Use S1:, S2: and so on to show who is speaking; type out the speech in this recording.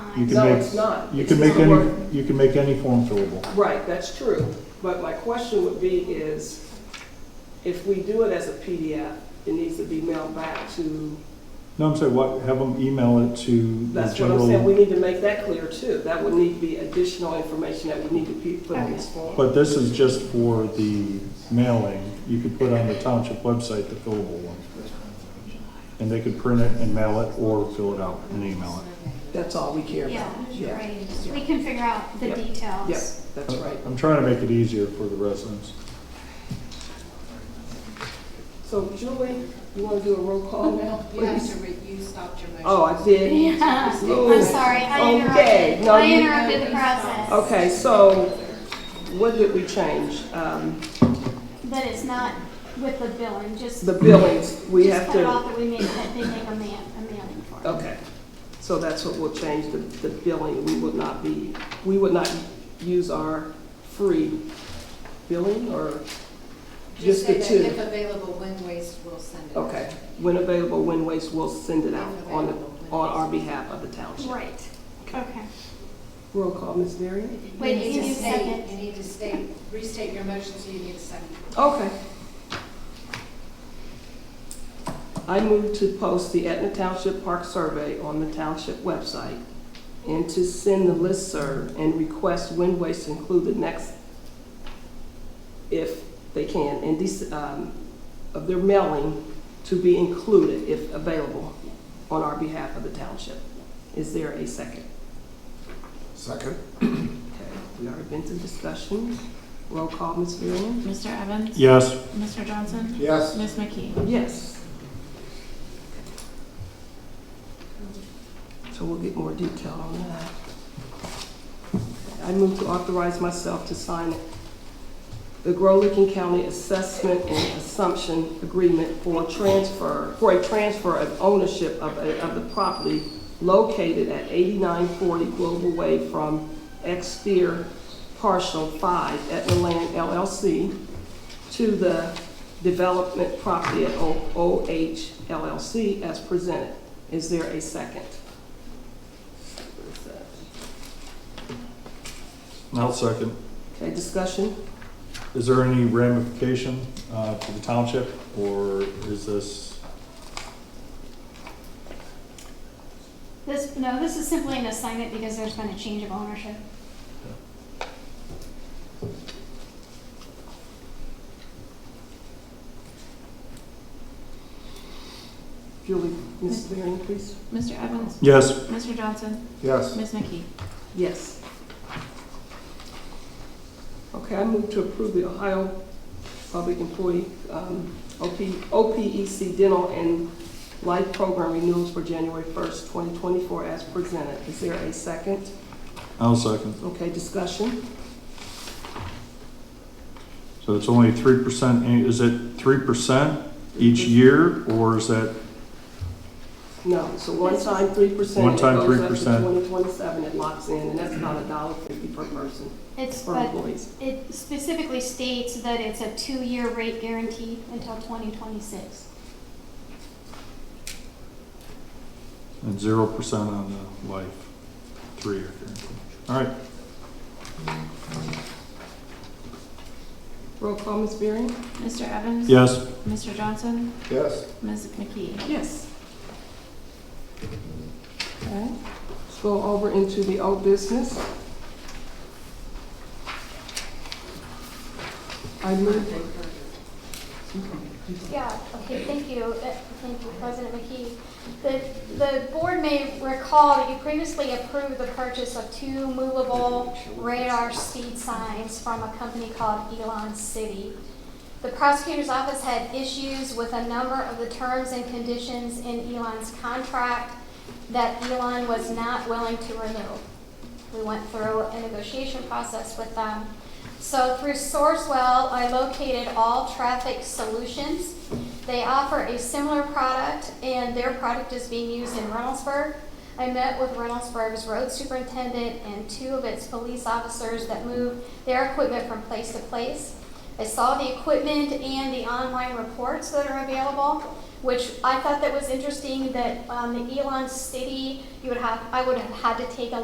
S1: You
S2: fine.
S1: can
S3: No,
S1: make-
S3: it's not.
S1: You
S3: It's
S1: can
S3: not
S1: make any,
S3: working.
S1: you can make any form fillable.
S3: Right, that's true. But my question would be is, if we do it as a PDF, it needs to be mailed back to,
S1: No, I'm saying, what, have them email it to the
S3: that's what I'm saying, we
S1: general.
S3: need to make that clear too. That would need to be additional information that we need to pe- put in this form.
S1: But this is just for the mailing. You could put on the township website the fillable one. And they could print it and mail it or fill it out and email
S3: That's all we care about.
S2: Yeah, right. We can figure out the
S3: Yep.
S2: details.
S3: Yep, that's
S1: it.
S3: right.
S1: I'm trying to make it easier for the residents.
S3: So Julie, you want to do a roll
S2: Oh,
S3: call now?
S4: You have to, re- you stopped your motion.
S3: Oh, I did.
S2: Yeah,
S3: Ooh.
S2: I'm sorry, I
S3: Oh. Okay,
S2: interrupted,
S3: no,
S2: I
S3: you-
S2: interrupted the process.
S3: Okay, so what did we change? Um,
S2: But it's not with the billing, just,
S3: The billings, we
S2: just
S3: have
S2: cut it
S3: to,
S2: off that we make, that they make a man, a mailing for. it.
S3: okay. So that's what we'll change, the, the billing. We would not be, we would not use our free billing or just
S4: Just say
S3: the
S4: that
S3: two?
S4: if available, Wind Waste will send it.
S3: Okay, when available, when waste, we'll send it out on, the- on our behalf of the township.
S2: Right, okay.
S3: Roll call, Ms. Marion?
S4: You
S2: Wait,
S4: need
S2: you
S4: to
S2: need a
S4: state-
S2: second.
S4: You need to state, restate your motion, so you need a second.
S3: Okay. I move to post the Etna Township Park Survey on the township website and to send the listserv and request wind waste include the next, if they can, in this, um, of their mailing to be included, if available, on our behalf of the township. Is there a second?
S5: Second?
S3: Okay, we already been to discussion. Roll call, Ms. Villian?
S6: Mr. Evans?
S1: Yes,
S6: Mr. Johnson?
S5: Yes.
S6: Ms. McKee?
S3: Yes. So we'll get more detail on that. I move to authorize myself to sign the Grolikin County Assessment and Assumption Agreement for transfer, for a transfer of ownership of, a- of the property located at 8940 Global Way from Exter Partial 5 Etna Land LLC to the development property at O- OH LLC as presented. Is there a second?
S1: I'll second.
S3: Okay, discussion?
S1: Is there any ramification uh, to the township, or is this,
S2: This, no, this is simply an assignment because there's been a change of ownership.
S3: Julie, Ms. Varyn, please.
S6: Mr. Evans?
S1: yes,
S6: Mr. Johnson?
S5: Yes.
S6: Ms. McKee?
S3: Yes. Okay, I move to approve the Ohio Public Employee um, OP OPEC E Dental and Life Program renewals for January 1st, 2024 as presented. Is there a second?
S1: I'll second.
S3: Okay, discussion?
S1: So it's only three percent, is it three percent each year, or is that,
S3: No, so one time three percent.
S1: One time
S3: It goes
S1: 3%.
S3: up to twenty twenty-seven, it locks in, and that's about a dollar fifty per person,
S2: It's,
S3: for
S2: but
S3: employees.
S2: it specifically states that it's a two-year rate guaranteed until twenty twenty-six.
S1: and zero percent on the life, three-year guarantee? All right,
S3: Roll call, Ms. Beering?
S6: Mr. Evans?
S1: yes,
S6: Mr. Johnson?
S5: Yes.
S6: Ms. McKee?
S3: Yes. Okay, let's go over into the old business. I move,
S2: Yeah, okay, thank you, Uh, thank you, President McKee. The, the board may recall that you previously approved the purchase of two movable radar speed signs from a company called Elon City. The prosecutor's office had issues with a number of the terms and conditions in Elon's contract that Elon was not willing to renew. We went through a negotiation process with them. So through Sourcewell, I located All Traffic Solutions. They offer a similar product, and their product is being used in Reynoldsburg. I met with Reynoldsburg's road superintendent and two of its police officers that move their equipment from place to place. I saw the equipment and the online reports that are available, which I thought that was interesting that um, the Elon City, you would have, I would have had to take a